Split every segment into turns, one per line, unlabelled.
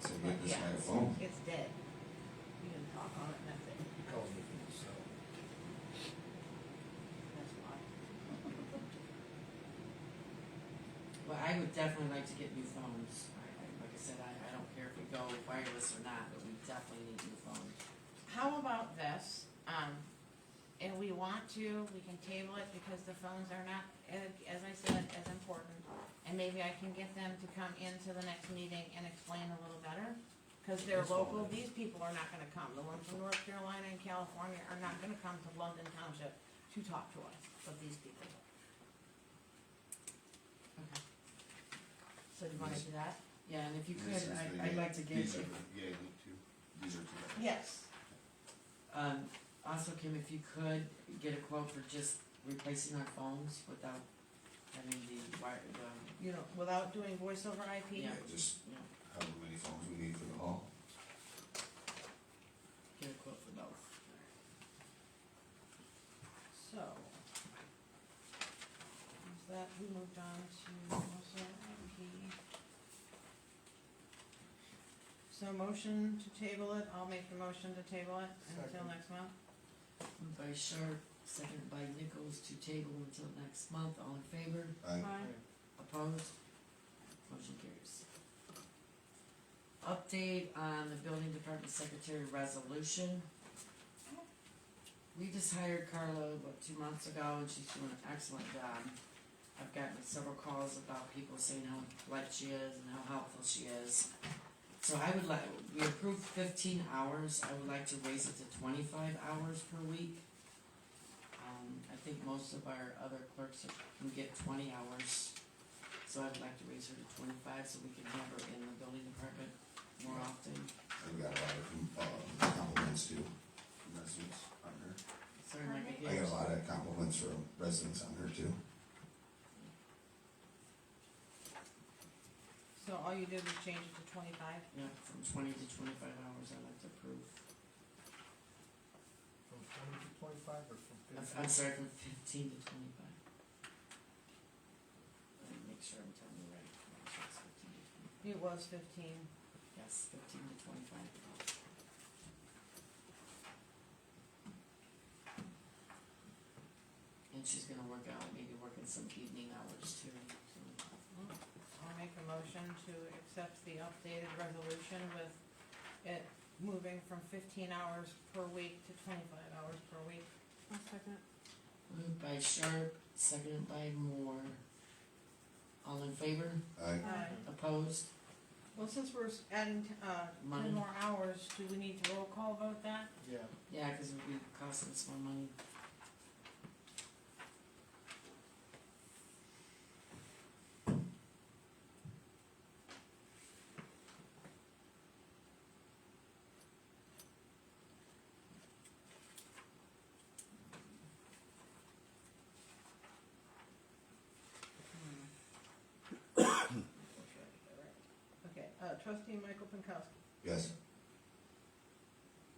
just
Yeah.
had a phone.
It's dead. You can talk on it, nothing,
He calls me from his cell.
that's why.
Well, I would definitely like to get new phones. I, I, like I said, I, I don't care if we go wireless or not, but we definitely need new phones.
How about this, um, if we want to, we can table it because the phones are not, as as I said, as important. And maybe I can get them to come into the next meeting and explain a little better, cause they're
That's all
local,
right.
these people are not gonna come. The ones from North Carolina and California are not gonna come to London Township to talk to us, but these people.
Okay.
So do you wanna do that?
Yeah, and if you could,
This is the-
I, I'd like to get,
These are, yeah, you two, these are two.
Yes.
um, also Kim, if you could, get a quote for just replacing our phones without having the um, wire, the,
You know, without doing voiceover IP?
Yeah.
Yeah, just
you know,
however many phones we need for the hall.
get a quote for both.
So. Is that, we moved on to also IP. So motion to table it, I'll make the motion to table it until
Second.
next month.
Moved by Sharp, seconded by Nichols to table until next month, all in favor?
I,
Opposed? Motion carries. Update on the building department secretary resolution. We just hired Carla, what, two months ago, and she's doing an excellent job. I've gotten several calls about people saying how polite she is and how helpful she is. So I would like, we approved fifteen hours, I would like to raise it to twenty-five hours per week. Um, I think most of our other clerks can get twenty hours. So I'd like to raise her to twenty-five so we can have her in the building department more often.
I've got a lot of, com- uh, compliments too, from residents on her.
Sorry,
I
Mike, I can't-
got a lot of compliments from residents on her too.
So all you did was change it to twenty-five?
Yeah, from twenty to twenty-five hours, I'd like to approve.
From twenty to twenty-five or from
I'm-
fifteen?
I'm sorry, from fifteen to twenty-five. Let me make sure I'm telling you right. Make sure it's 15 to
It
25.
was fifteen.
Yes, fifteen to twenty-five. And she's gonna work out, maybe working some evening hours too, so.
I'll make a motion to accept the updated resolution with it moving from fifteen hours per week to twenty-five hours per week. One second.
Moved by Sharp, seconded by Moore. All in favor?
I,
Aye.
Opposed?
Well, since we're s- adding, t- uh,
Money.
ten more hours, do we need to roll call vote that?
Yeah,
Yeah, because it would be costing us more money.
Okay, uh, trustee Michael Pankowski,
yes,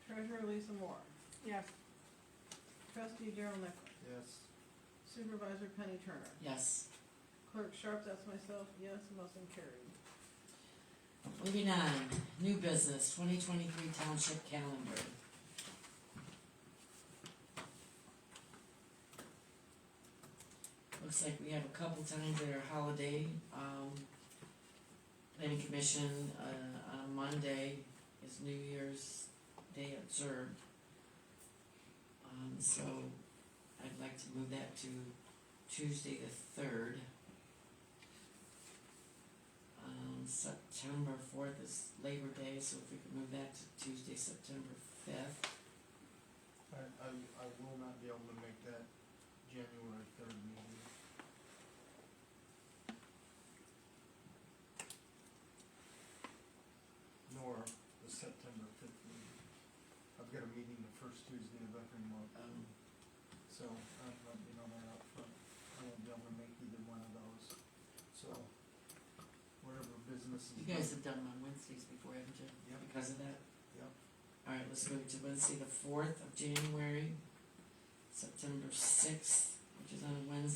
treasurer Lisa Moore,
Yes,
trustee Daryl Nichols,
yes,
supervisor Penny Turner,
Yes.
clerk Sharp, that's myself, yes, motion carried.
Moving on, new business, twenty twenty-three township calendar. Looks like we have a couple times that are holiday, um, planning commission, uh, on Monday is New Year's Day observed. Um, so I'd like to move that to Tuesday the third. Um, September fourth is Labor Day, so if we could move that to Tuesday, September fifth.
I, I, I will not be able to make that January third meeting. Nor the September fifth meeting. I've got a meeting the first Tuesday of every month,
Um,
so I'm not being on that up front. I won't be able to make either one of those, so whatever business is.
you guys have done them on Wednesdays before, haven't you?
Yep.
Because of that?
Yep.
Alright, let's move it to Wednesday, the fourth of January, September sixth, which is on a Wednesday.